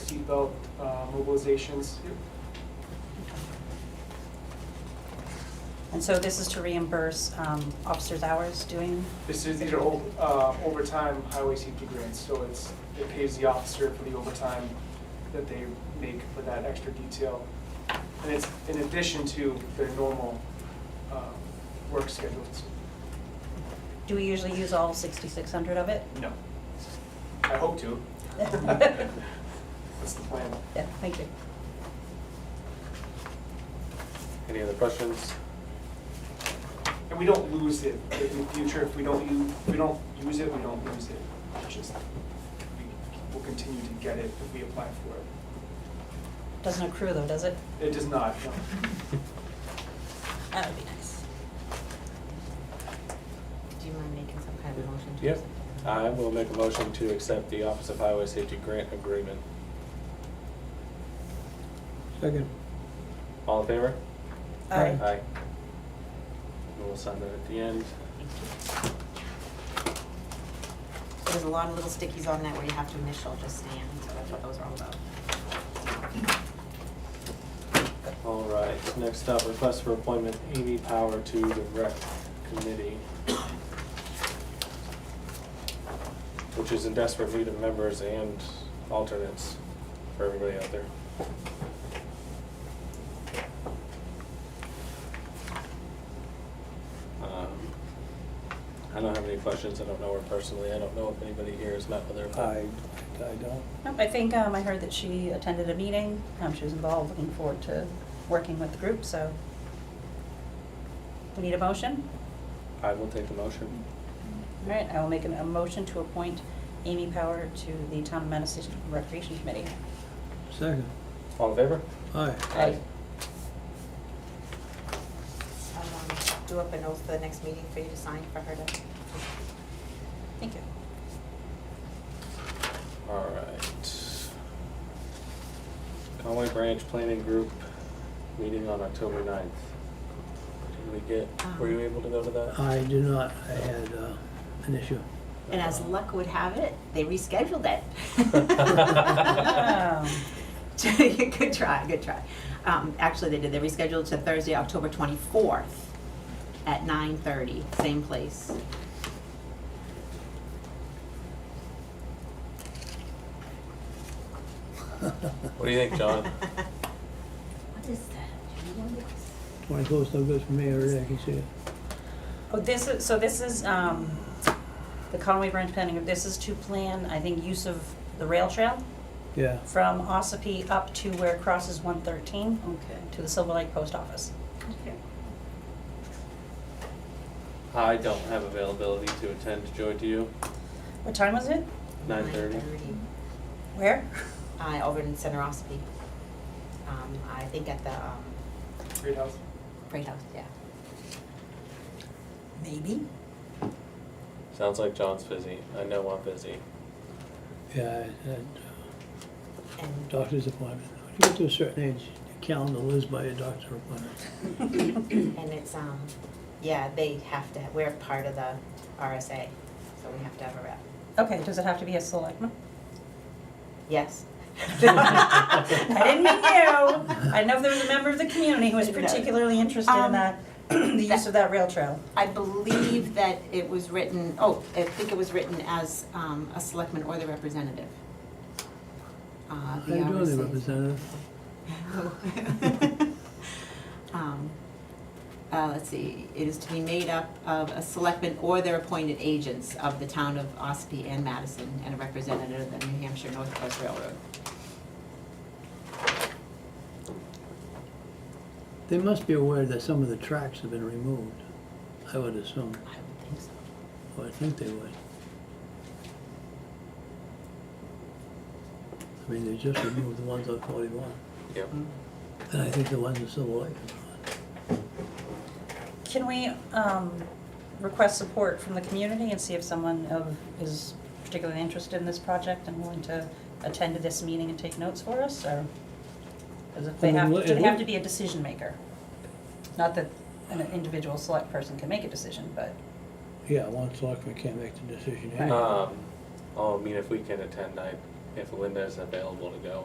seatbelt uh, mobilizations. And so this is to reimburse um, officers' hours doing, This is, these are o- uh, overtime highway safety grants, so it's, it pays the officer for the overtime that they make for that extra detail. And it's in addition to their normal um, work schedules. do we usually use all 6,600 of it? No. I hope to. That's the plan. Yeah, thank you. Any other questions? And we don't lose it in the future, if we don't use, we don't use it, we don't lose it. It's just, we will continue to get it if we apply for it. Doesn't accrue though, does it? It does not, no. That would be nice. Do you mind making some kind of motion to? Yep. Uh, I will make a motion to accept the Office of Highway Safety Grant Agreement. Second. All in favor? Aye. Aye. And We'll sign that at the end. So There's a lot of little stickies on that where you have to initial just stand, so that's what those are all about. All right, next up, request for appointment Amy Power to the Rec Committee. Which is in desperate need of members and alternates for everybody out there. Um, I don't have any questions, I don't know her personally, I don't know if anybody here has met with her. but- I, I don't. Nope, I think um, I heard that she attended a meeting, um, she was involved, looking forward to working with the group, so. We need a motion? I will take the motion. All right, I will make an- a motion to appoint Amy Power to the Town of Madison Recreation Committee. Second. All in favor? Aye. Aye. Um, Do up a note for the next meeting for you to sign for her to. Thank you. All right. Conway Branch Planning Group meeting on October 9th. Did we get, were you Um. able to go to that? I do not, I had uh, an issue. And as luck would have it, they rescheduled Wow. it. Good try, good try. Um, Actually, they did, they rescheduled to Thursday, October 24th at 9:30, same place. What do you think, John? What is that? Twenty-four's no good for me already, I can see it. Oh, this is, so this is, um, the Conway Branch Planning, this is to plan, I think, use of the rail trail Yeah, from Ossipee up to where it crosses one thirteen Okay. to the Silver Lake Post Office. Okay. I don't have availability to attend. Joy, do you? What time was it? 9:30? Where? Uh, over in Centerosity. Um, I think at the, um, Great house. Freight House, yeah. Maybe? Sounds like John's busy. I know I'm busy. yeah, I had uh, And doctor's appointment. When you get to a certain age, your calendar lives by your doctor appointment. And it's, um, yeah, they have to, we're part of the RSA, so we have to have a rep. Okay, does it have to be a selectman? Yes. I didn't mean you. I know if there was a member of the community who was No. particularly interested in Um, that, the use of that rail trail. I believe that it was written, oh, I think it was written as, um, a selectman or the representative. Uh, How the you doing, RSA. there, Representative? Um, uh, let's see, it is to be made up of a selectman or their appointed agents of the town of Ospey and Madison and a representative of the New Hampshire North Coast Railroad. They must be aware that some of the tracks have been removed, I would assume, I would think so. or I think they would. I mean, they just removed the ones on forty-one, Yep. and I think the ones in Silver Lake. Can we, um, request support from the community and see if someone of, is particularly interested in this project and willing to attend to this meeting and take notes for us, or? Does it, they I mean, have, well, do it they have would- to be a decision maker? Not that an individual select person can make a decision, but, Yeah, one selectman can't make Uh, the decision anyway. Um, oh, I mean, if we can attend, I, if Linda is available to go,